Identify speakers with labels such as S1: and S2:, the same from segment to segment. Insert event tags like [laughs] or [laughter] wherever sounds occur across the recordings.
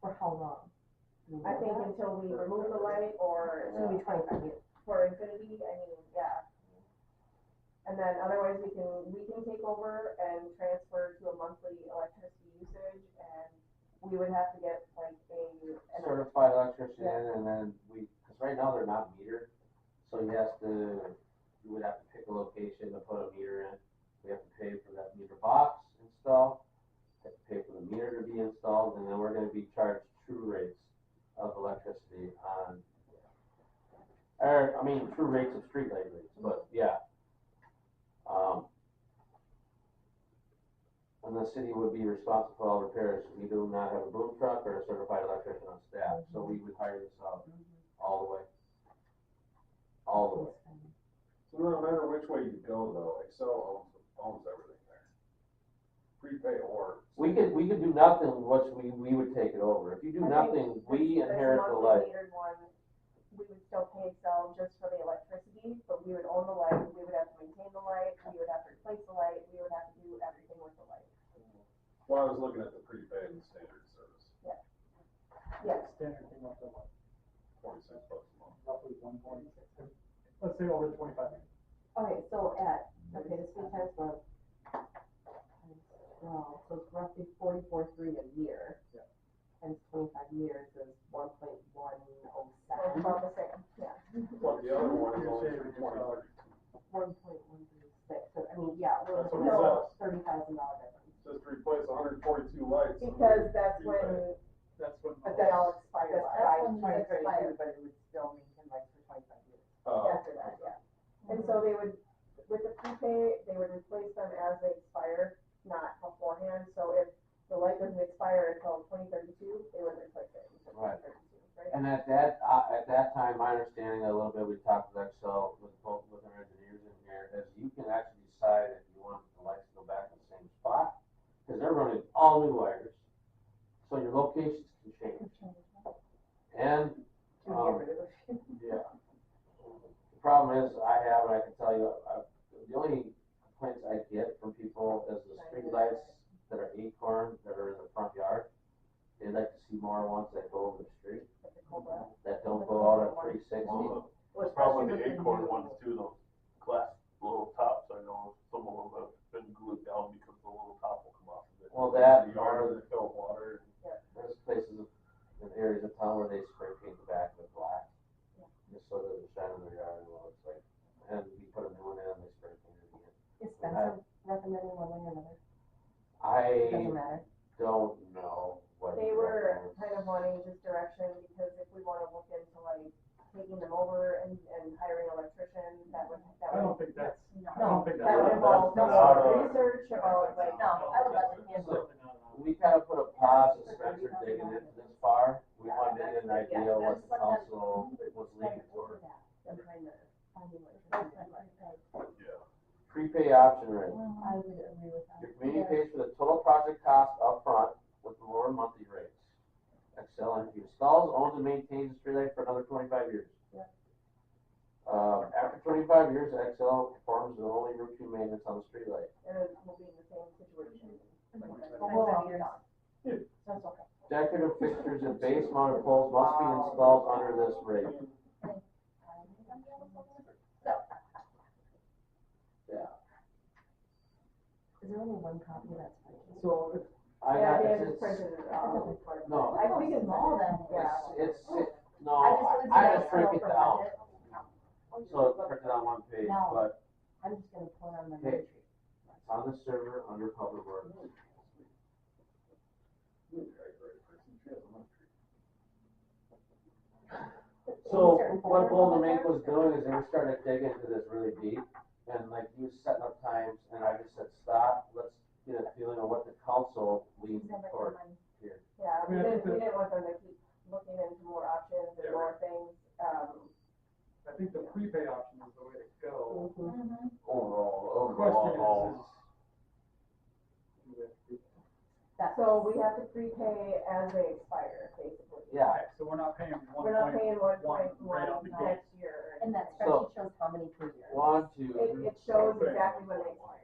S1: For how long?
S2: I think until we remove the light
S1: It's
S2: or
S1: gonna be twenty-five years.
S2: for infinity, I mean, yeah. And then otherwise, we can, we can take over and transfer to a monthly electricity usage, and we would have to get like a, an-
S3: certified electrician
S2: Yeah.
S3: and then we, cause right now they're not metered. So you have to, you would have to pick a location to put a meter in. We have to pay for that meter box install. Have to pay for the meter to be installed and then we're gonna be charged true rates of electricity on. Or, I mean, true rates of streetlight rates, but yeah. Um. And the city would be responsible for all repairs. We do not have a boom truck or a certified electrician on staff, so we would hire this out all the way. All the way.
S4: So no matter which way you go though, Excel owns, owns everything there. Prepay or.
S3: We could, we could do nothing, once we, we would take it over. If you do
S2: I
S3: nothing,
S2: think
S3: we
S2: this- this
S3: inherit the
S2: monthly
S3: light.
S2: metered one, We would still pay Excel just for the electricity, but we would own the light, we would have to maintain the light, we would have to replace the light, we would have to do everything with the light.
S4: Well, I was looking at the prepay and the standard service,
S2: Yes,
S5: Standard came up to like
S4: twenty-six bucks a month.
S5: roughly one point six, let's say over twenty-five years.
S1: Okay, so at, okay, this three times one. Well, so it's roughly forty-four three a year.
S5: Yeah.
S1: Times twenty-five years is one point one oh
S2: well,
S1: seven.
S2: about the same, yeah. [laughs]
S4: But the other one is
S5: You're
S4: only
S5: saving
S4: for twenty-three.
S1: One point one three six, so I mean, yeah, we're
S4: That's
S1: looking
S4: what it
S1: at
S4: says.
S1: thirty thousand dollar difference.
S4: Just replace hundred and forty-two lights. and
S2: Because that's
S4: prepay.
S2: when
S5: That's what.
S2: they all expire
S1: That's
S2: by
S1: by 2032,
S2: twenty thirty-two
S1: but it would still maintain like for twenty-five years.
S4: Uh,
S2: after that, yeah. And so they would, with the prepay, they would replace them as they expire, not beforehand, so if the light doesn't expire until twenty thirty-two, they would replace it until
S3: Right.
S2: twenty thirty-two, right?
S3: And at that, uh, at that time, my understanding a little bit, we talked with Excel, with both, with our engineers in here, is you can actually decide if you want the lights to go back in the same spot, because they're running all new wires, so your locations can change. And,
S1: Can we
S3: Um,
S1: get rid of it?
S3: yeah, the problem is, I have, and I can tell you, I, the only complaints I get from people is the streetlights that are acorn, that are in the front yard, they like to see more ones that go over the street,
S2: With the COLA.
S3: that don't go out at three sixty.
S6: Well,
S1: Well,
S6: the problem with
S1: especially
S6: the
S1: with
S6: acorn
S1: new-
S6: ones too, those glass little tops, I know some of them have been glued down because the little top will come off of it.
S3: Well, that
S4: The
S3: are,
S4: yard that fill water.
S3: there's places in areas of town where they spray paint the back with black. Just so that it shine in their yard and what it's like, and we put a new one in, they spray paint it again.
S1: Is Spencer recommending one way or another? Doesn't
S3: I
S1: matter.
S3: don't know what.
S2: They
S3: he
S2: were
S3: recommends.
S2: kind of wanting just direction, because if we wanna look into like taking them over and, and hiring electricians, that would, that
S5: I
S2: would.
S5: don't think that's, I
S1: No,
S5: don't think
S2: That would
S5: that's.
S2: involve
S5: that's-
S2: some
S6: not
S2: sort
S5: that's-
S2: of
S6: a-
S2: research about like.
S6: No, I would let them
S3: handle it.
S5: Something out of-
S3: We kind of put a pause to Spencer digging into this far, we
S2: Yeah,
S3: wanted to get an
S2: that's- yeah,
S3: idea
S1: that's
S3: what the
S1: what I'm-
S3: council was leaning toward.
S1: Behind the, on the
S4: Yeah.
S3: Prepay option rate,
S1: I would agree with that.
S3: your community pays for the total project cost upfront with lower monthly rates. Excel Energy installs, owns and maintains the streetlight for another twenty-five years.
S1: Yeah.
S3: Uh, after twenty-five years, Excel performs the only routine maintenance on the streetlight.
S2: And then we'll be in the same situation.
S1: Well, you're not.
S5: Yeah.
S1: That's okay.
S3: Decorative fixtures and base mounted poles must be installed under this rate.
S1: Is there only one copy that's printed?
S5: So if
S3: I
S2: Yeah,
S3: got,
S2: they
S3: it's,
S2: just
S3: it's,
S2: printed it out.
S3: no,
S2: I Oh. think it's small then, yeah.
S3: it's, it's, no, I- I just break it down. So it's printed on one page,
S1: No.
S3: but
S1: I'm just gonna pull it on my
S3: Hey.
S1: entry.
S3: it's on the server under public works. Hmm. So what Boulder Mink was doing is they were starting to dig into this really deep and like he was setting up times and I just said, stop, let's get a feeling of what the council leads toward here.
S2: Yeah,
S5: I
S2: we
S5: mean, I
S2: didn't,
S5: think
S2: we
S5: that-
S2: didn't want them to keep looking into more options and
S5: Yeah.
S2: more things, um,
S5: I think the prepay option is the way to go.
S1: Mm-hmm.
S3: Overall,
S5: The question is,
S3: overall,
S5: is. do we have to do
S1: That's-
S2: so we have to prepay as they expire, basically.
S3: yeah,
S5: that? So we're not paying one
S2: We're not
S5: point,
S2: paying one point
S5: right out
S2: one
S5: the gate.
S2: next year.
S7: And that
S3: So-
S7: spreadsheet shows how many per year.
S3: one,
S2: It,
S3: two,
S2: it shows
S4: Mm-hmm.
S2: exactly when they expire.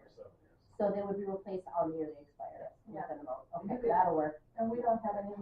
S7: So they would be replaced on the year they expire,
S2: Yeah.
S7: with an amount.
S1: You
S7: Okay,
S1: could-
S7: that'll work.
S1: And we don't have any